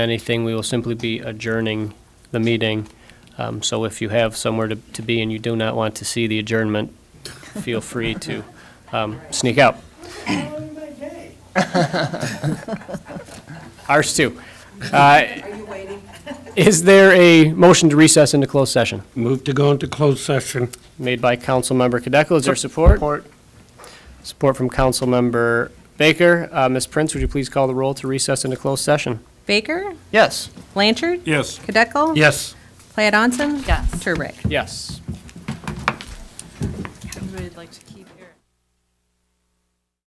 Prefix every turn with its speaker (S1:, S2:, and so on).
S1: anything, we will simply be adjourning the meeting. Um, So if you have somewhere to to be and you do not want to see the adjournment, feel free to um, sneak out. Ours too. Uh,
S2: Are you waiting?
S1: Is there a motion to recess into closed session?
S3: Move to go into closed session.
S1: Made by Councilmember Kadeco. Is there support? Support. from Councilmember Baker. Uh, Ms. Prince, would you please call the roll to recess into closed session?
S2: Baker?
S1: Yes.
S2: Blanchard?
S3: Yes.
S2: Kadeco?
S3: Yes.
S2: Platt Onson? Yes. Turbrack?
S1: Yes.
S4: Everybody would like to keep